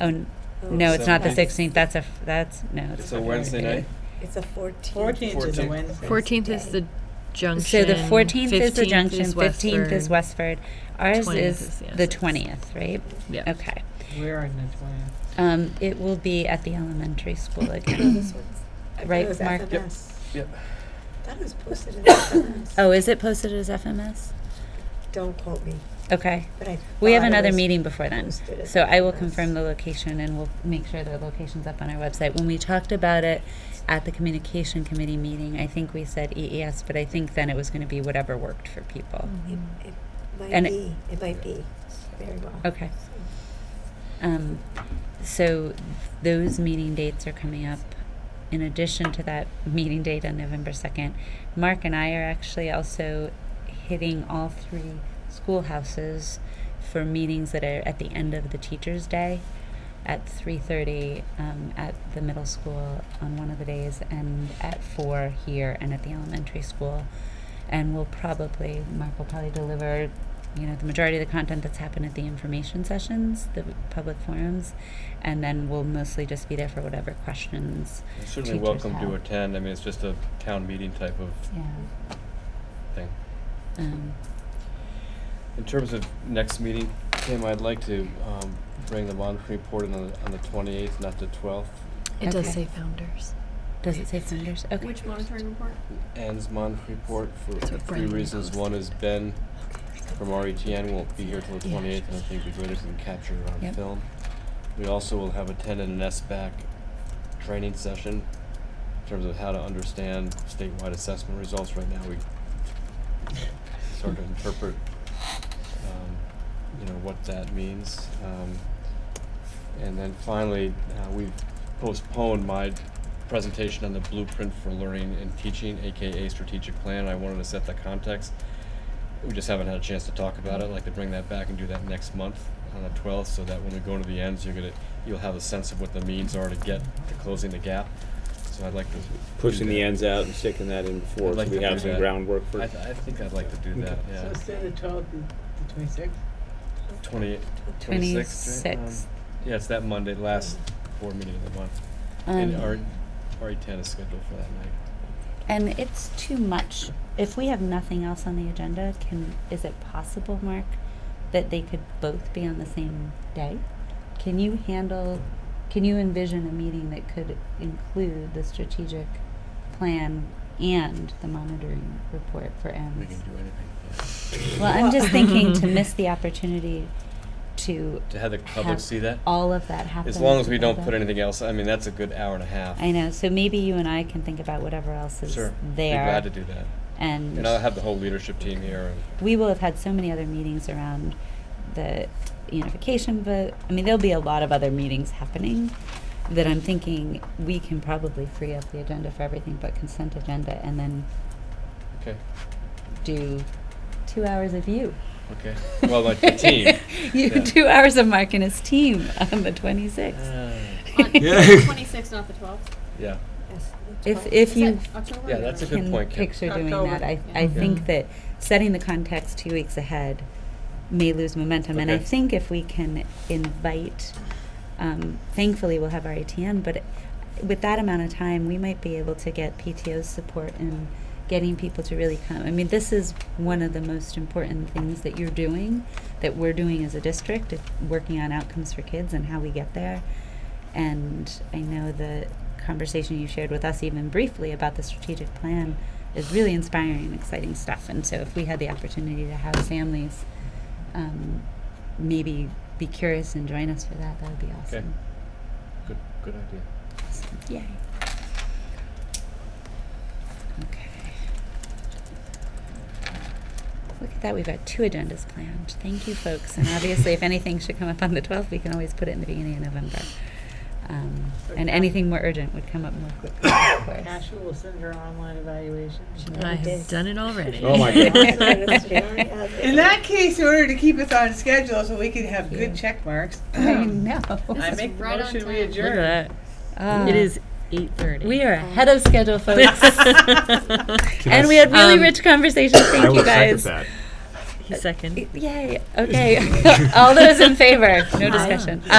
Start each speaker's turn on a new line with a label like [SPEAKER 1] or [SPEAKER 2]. [SPEAKER 1] Oh, n- no, it's not the
[SPEAKER 2] Seventeenth.
[SPEAKER 1] sixteenth, that's a, f- that's, no.
[SPEAKER 2] It's a Wednesday night?
[SPEAKER 3] It's a 14th.
[SPEAKER 4] Fourteenth is a
[SPEAKER 2] Fourteenth.
[SPEAKER 4] Wednesday.
[SPEAKER 5] Fourteenth is
[SPEAKER 3] Day.
[SPEAKER 5] the
[SPEAKER 1] So
[SPEAKER 5] junction.
[SPEAKER 1] the fourteenth is the
[SPEAKER 5] 15th
[SPEAKER 1] junction, fifteenth is Westford.
[SPEAKER 5] Westford.
[SPEAKER 1] Ours
[SPEAKER 5] 20th
[SPEAKER 1] is
[SPEAKER 5] is, yeah,
[SPEAKER 1] the
[SPEAKER 5] it's-
[SPEAKER 1] twentieth, right?
[SPEAKER 5] Yeah.
[SPEAKER 1] Okay.
[SPEAKER 4] We're in the twentieth.
[SPEAKER 1] Um, it will be at the elementary school
[SPEAKER 3] No,
[SPEAKER 1] again.
[SPEAKER 3] this one's- I thought
[SPEAKER 1] Mm-hmm. Right,
[SPEAKER 3] it was
[SPEAKER 1] Mark?
[SPEAKER 3] FMS.
[SPEAKER 2] Yep. Yep.
[SPEAKER 3] That was posted in FMS.
[SPEAKER 1] Oh, is it posted as FMS?
[SPEAKER 3] Don't quote me,
[SPEAKER 1] Okay.
[SPEAKER 3] but I.
[SPEAKER 1] We have
[SPEAKER 3] thought it
[SPEAKER 1] another
[SPEAKER 3] was
[SPEAKER 1] meeting before then.
[SPEAKER 3] posted as
[SPEAKER 1] So I will
[SPEAKER 3] FMS.
[SPEAKER 1] confirm the location and we'll make sure the location's up on our website. When we talked about it at the communication committee meeting, I think we said EES, but I think then it was gonna be whatever worked for people.
[SPEAKER 3] It,
[SPEAKER 5] Mhm.
[SPEAKER 3] it might
[SPEAKER 1] And it-
[SPEAKER 3] be, it might be, very well.
[SPEAKER 1] Okay. Um, so those meeting dates are coming up. In addition to that meeting date on November 2nd, Mark and I are actually also hitting all three schoolhouses for meetings that are at the end of the teacher's day at 3.30 um, at the middle school on one of the days and at 4 here and at the elementary school and we'll probably mark will probably deliver you know the majority of the content that's happened at the information sessions the public forums and then we'll mostly just be there for whatever questions
[SPEAKER 2] Certainly
[SPEAKER 1] Teachers
[SPEAKER 2] welcome
[SPEAKER 1] have.
[SPEAKER 2] to attend. I mean, it's just a town meeting type of
[SPEAKER 1] yeah
[SPEAKER 2] thing.
[SPEAKER 1] um,
[SPEAKER 2] In terms of next meeting, Tim, I'd like to um, bring the monitoring report on the, on the twenty-eighth, not the twelfth.
[SPEAKER 5] It does
[SPEAKER 1] Okay.
[SPEAKER 5] say founders.
[SPEAKER 1] does it say founders okay
[SPEAKER 6] Which monitoring report?
[SPEAKER 2] Ann's monitoring report
[SPEAKER 5] That's
[SPEAKER 2] for
[SPEAKER 5] what
[SPEAKER 2] three
[SPEAKER 5] Brian
[SPEAKER 2] reasons.
[SPEAKER 5] posted.
[SPEAKER 2] One is Ben from RETN won't be here till the
[SPEAKER 5] Yeah.
[SPEAKER 2] twenty-eighth, and I think it'd be great if we can capture it on
[SPEAKER 1] Yep.
[SPEAKER 2] film. We also will have attended an SBAC training session in terms of how to understand statewide assessment results. Right now, we sort of interpret, um, you know, what that means. Um, and then finally, uh, we've postponed my presentation on the blueprint for learning and teaching, AKA strategic plan. I wanted to set the context. We just haven't had a chance to talk about it. I'd like to bring that back and do that next month on the twelfth, so that when we go to the ends, you're gonna, you'll have a sense of what the means are to get to closing the gap. So I'd like to. do
[SPEAKER 7] pushing the
[SPEAKER 2] that.
[SPEAKER 7] ends out and sticking that in before,
[SPEAKER 2] I'd
[SPEAKER 7] so
[SPEAKER 2] like
[SPEAKER 7] we
[SPEAKER 2] to
[SPEAKER 7] have
[SPEAKER 2] do
[SPEAKER 7] some
[SPEAKER 2] that.
[SPEAKER 7] groundwork for.
[SPEAKER 2] I, th- I think I'd like to do that,
[SPEAKER 4] So
[SPEAKER 2] yeah.
[SPEAKER 4] it's the twelfth, the twenty-sixth?
[SPEAKER 2] Twenty, twenty-sixth, right? Um,
[SPEAKER 1] 26
[SPEAKER 2] Yeah, it's that Monday, last board meeting of the month. And
[SPEAKER 1] Um,
[SPEAKER 2] R, RE ten is scheduled for that night.
[SPEAKER 1] And it's too much. If we have nothing else on the agenda, can is it possible, Mark, that they could both be on the same day? Can you handle? Can you envision a meeting that could include the strategic plan and the monitoring report for EMS?
[SPEAKER 2] We can do anything, yeah.
[SPEAKER 1] Well, I'm just thinking to miss the opportunity to
[SPEAKER 2] To have the public
[SPEAKER 1] Have
[SPEAKER 2] see that,
[SPEAKER 1] all of that happen.
[SPEAKER 2] as long as we don't
[SPEAKER 1] together.
[SPEAKER 2] put anything else, I mean, that's a good hour and a half.
[SPEAKER 1] I know. So maybe you and I can think about whatever else is
[SPEAKER 2] Sure, be
[SPEAKER 1] there.
[SPEAKER 2] glad to do that.
[SPEAKER 1] and
[SPEAKER 2] And I'll have the whole leadership team here and.
[SPEAKER 1] we will have had so many other meetings around the unification vote. I mean, there'll be a lot of other meetings happening that I'm thinking we can probably free up the agenda for everything but consent agenda and then
[SPEAKER 2] Okay,
[SPEAKER 1] do two hours of you.
[SPEAKER 2] okay. Well, like the team.
[SPEAKER 1] you
[SPEAKER 2] Yeah.
[SPEAKER 1] two hours of Mark and his team on the 26th.
[SPEAKER 2] Ah.
[SPEAKER 6] On the twenty-sixth, not the twelfth.
[SPEAKER 2] Yeah,
[SPEAKER 3] Yes, the
[SPEAKER 1] if
[SPEAKER 3] 12th.
[SPEAKER 1] if you
[SPEAKER 6] October?
[SPEAKER 2] yeah, that's a good
[SPEAKER 1] can
[SPEAKER 2] point, Kim.
[SPEAKER 1] picture doing
[SPEAKER 4] October.
[SPEAKER 1] that, I, I
[SPEAKER 6] Yeah.
[SPEAKER 1] think that setting the context two weeks ahead may lose momentum. And I
[SPEAKER 2] Okay.
[SPEAKER 1] think if we can invite, um, thankfully we'll have our ATN, but with that amount of time, we might be able to get PTO's support in getting people to really come. I mean, this is one of the most important things that you're doing, that we're doing as a district, is working on outcomes for kids and how we get there. And I know the conversation you shared with us, even briefly, about the strategic plan is really inspiring and exciting stuff. And so, if we had the opportunity to have families um, maybe be curious and join us for that, that would be awesome.
[SPEAKER 2] Good, good idea.
[SPEAKER 1] Yay. Okay. Look at that, we've got two agendas planned. Thank you, folks. And obviously, if anything should come up on the 12th, we can always put it in the beginning of November. Um, and anything more urgent would come up more quickly, of course.
[SPEAKER 4] Ashley will send her online evaluation.
[SPEAKER 6] Mm-hmm.
[SPEAKER 5] I
[SPEAKER 3] It
[SPEAKER 5] have
[SPEAKER 3] is.
[SPEAKER 5] done it already.
[SPEAKER 7] Oh my
[SPEAKER 4] In that case, in order to keep us on schedule so we can have good check marks,
[SPEAKER 1] I
[SPEAKER 4] I
[SPEAKER 1] know.
[SPEAKER 6] is
[SPEAKER 4] make the
[SPEAKER 6] right on
[SPEAKER 4] motion we
[SPEAKER 6] time.
[SPEAKER 5] Look
[SPEAKER 4] adjourn.
[SPEAKER 5] at
[SPEAKER 1] Ah.
[SPEAKER 5] that. It is eight thirty.
[SPEAKER 1] We are ahead of schedule, folks. and we had really
[SPEAKER 5] Um,
[SPEAKER 1] rich conversations. Thank you guys.
[SPEAKER 5] He seconded.
[SPEAKER 1] Yay. Okay. All those in favor? No discussion. Uh,